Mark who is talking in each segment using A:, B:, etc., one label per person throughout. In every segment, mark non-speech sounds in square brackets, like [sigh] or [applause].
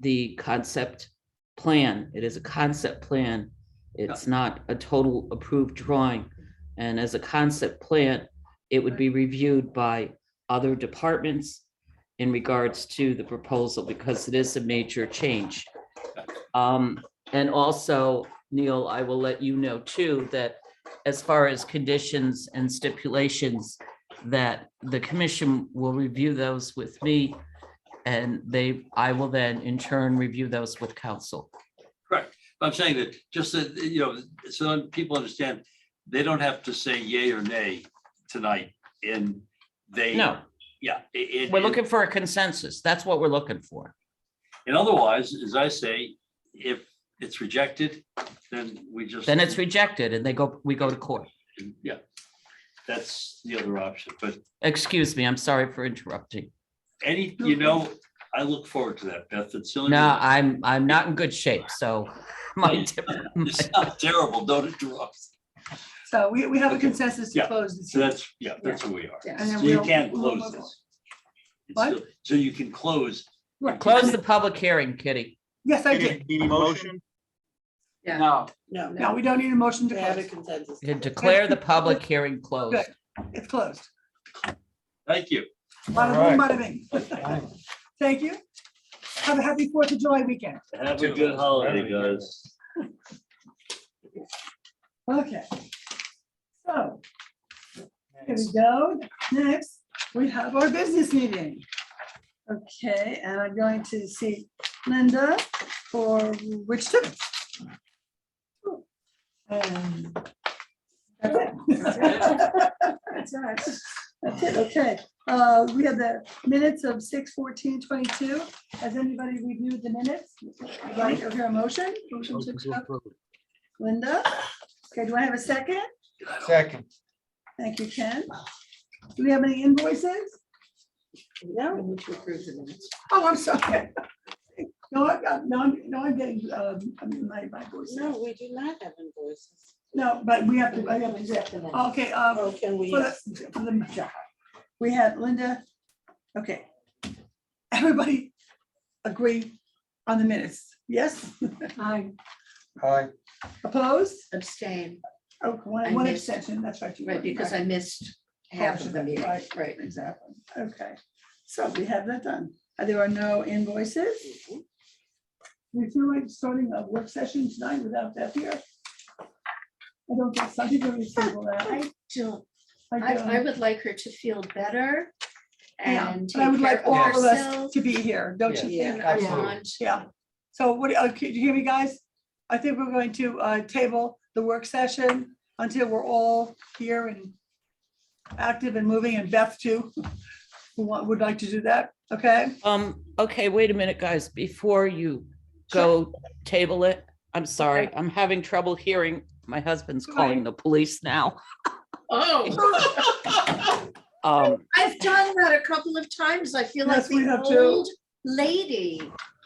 A: the concept plan. It is a concept plan. It's not a total approved drawing. And as a concept plan, it would be reviewed by other departments in regards to the proposal because it is a major change. Um, and also, Neil, I will let you know too, that as far as conditions and stipulations, that the commission will review those with me and they, I will then in turn review those with council.
B: I'm saying that just that, you know, so that people understand, they don't have to say yay or nay tonight and they.
A: No,
B: Yeah. it- it-
A: we're looking for a consensus. That's what we're looking for.
B: And otherwise, as I say, if it's rejected, then we just.
A: Then it's rejected and they go, we go to court.
B: Yeah. That's the other option, but
A: Excuse me, I'm sorry for interrupting.
B: any, you know, I look forward to that, Beth. It's silly.
A: No, I'm, I'm not in good shape, so my, [laughs] tip-
B: You sound terrible, don't interrupt.
C: So we, we have a
B: Okay.
C: consensus
B: Yeah.
C: to close this.
B: So that's, yeah, that's who we are.
C: Yeah, and then
B: So you
C: we'll-
B: can
C: we'll
B: close
C: move on.
B: this. It's
C: What?
B: still- So you can close
C: Right.
A: close the public hearing, Kitty.
C: Yes, I
D: Any-
C: did.
D: Any motion?
E: No. No.
C: No, we don't need a motion to
E: We have a
C: close.
E: consensus.
A: Declare the public hearing closed.
C: Good. It's closed.
B: Thank you.
C: Bada boom, bada bing. Thank you. Have a happy Fourth of July weekend.
B: Have a good holiday, guys.
C: Okay. So here we go. Next, we have our business meeting. Okay, and I'm going to see Linda for which two? And that's it. That's all right. [laughs] That's it, okay. Uh, We have the minutes of six fourteen twenty-two. Has anybody reviewed the minutes? Right, over a motion? Motion to accept. Linda? Okay, do I have a second?
D: Second.
C: Thank you, Ken. Do we have any invoices?
E: No, we need to approve the minutes.
C: Oh, I'm sorry. [laughs] No, I got, no, I'm, no, I'm getting, um, my, my voice.
E: No, we do not have invoices.
C: No, but we have to, I have to, yeah. okay, um,
E: Oh, can we?
C: for the- for the- yeah. we had Linda, okay. Everybody agree on the minutes, yes?
E: I
D: Aye.
C: Opposed?
E: abstain,
C: Oh, one,
E: I
C: one
E: missed.
C: exception, that's right. you
E: right,
C: were,
E: because
C: right.
E: I missed half of the meeting,
C: Right.
E: right.
C: Exactly, okay. So we have that done. Uh, There are no invoices. We feel like starting a work session tonight without Beth here. I don't think some people are reasonable that. um,
F: I don't,
C: I
F: I, I
C: don't.
F: would like her to feel better
C: Yeah,
F: and
C: But I
F: take
C: would
F: care
C: like
F: of
C: all of us
F: herself.
C: to be here, don't you
E: Yeah.
C: think?
F: and our
D: Absolutely.
F: lunch.
C: Yeah. So what, uh, can you hear me, guys? I think we're going to uh, table the work session until we're all here and active and moving, and Beth too, who wa- would like to do that, okay?
F: [laughs]
A: Um, okay, wait a minute, guys, before you go table it, I'm sorry, I'm having trouble hearing. My husband's
C: Right.
A: calling the police now.
E: Oh.
A: [laughs] Um,
F: [laughs] I've done that a couple of times. I feel like
C: Yes, we
F: the
C: have too.
F: old lady.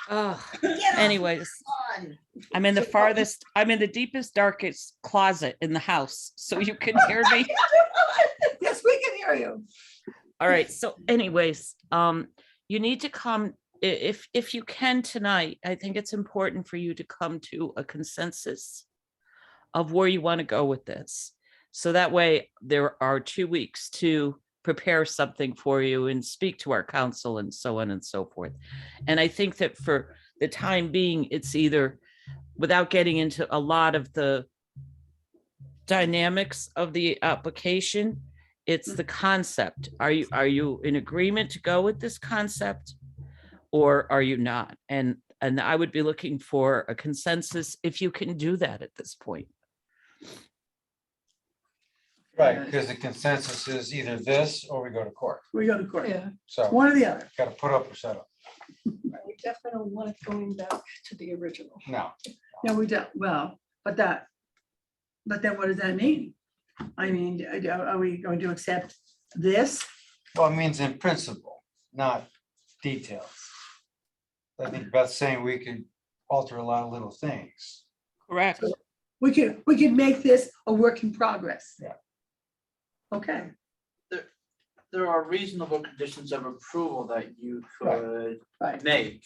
A: ah,
F: Get off
A: anyways,
F: the lawn.
A: I'm in the
F: So-
A: farthest, I'm in the deepest, darkest closet in the house, so you can hear me.
C: Yes, we can hear you.
A: All right, so anyways, um, you need to come, i- if, if you can tonight, I think it's important for you to come to a consensus of where you want to go with this. So that way, there are two weeks to prepare something for you and speak to our council and so on and so forth. And I think that for the time being, it's either, without getting into a lot of the dynamics of the application, it's the concept. Are you, are you in agreement to go with this concept? Or are you not? And, and I would be looking for a consensus if you can do that at this point.
D: Right, because the consensus is either this or we go to court.
C: We go to court,
D: So
C: one or the other.
D: got to put up or shut up.
G: We definitely don't want it going back to the original.
D: No.
C: No, we don't, well, but that, but then what does that mean? I mean, are- are we going to accept this?
D: Well, it means in principle, not details. I think Beth's saying we could alter a lot of little things.
A: Correct.
C: We could, we could make this a work in progress.
D: Yeah.
C: Okay,
H: there are reasonable conditions of approval that you
D: Right.
H: could
C: Right.
H: make.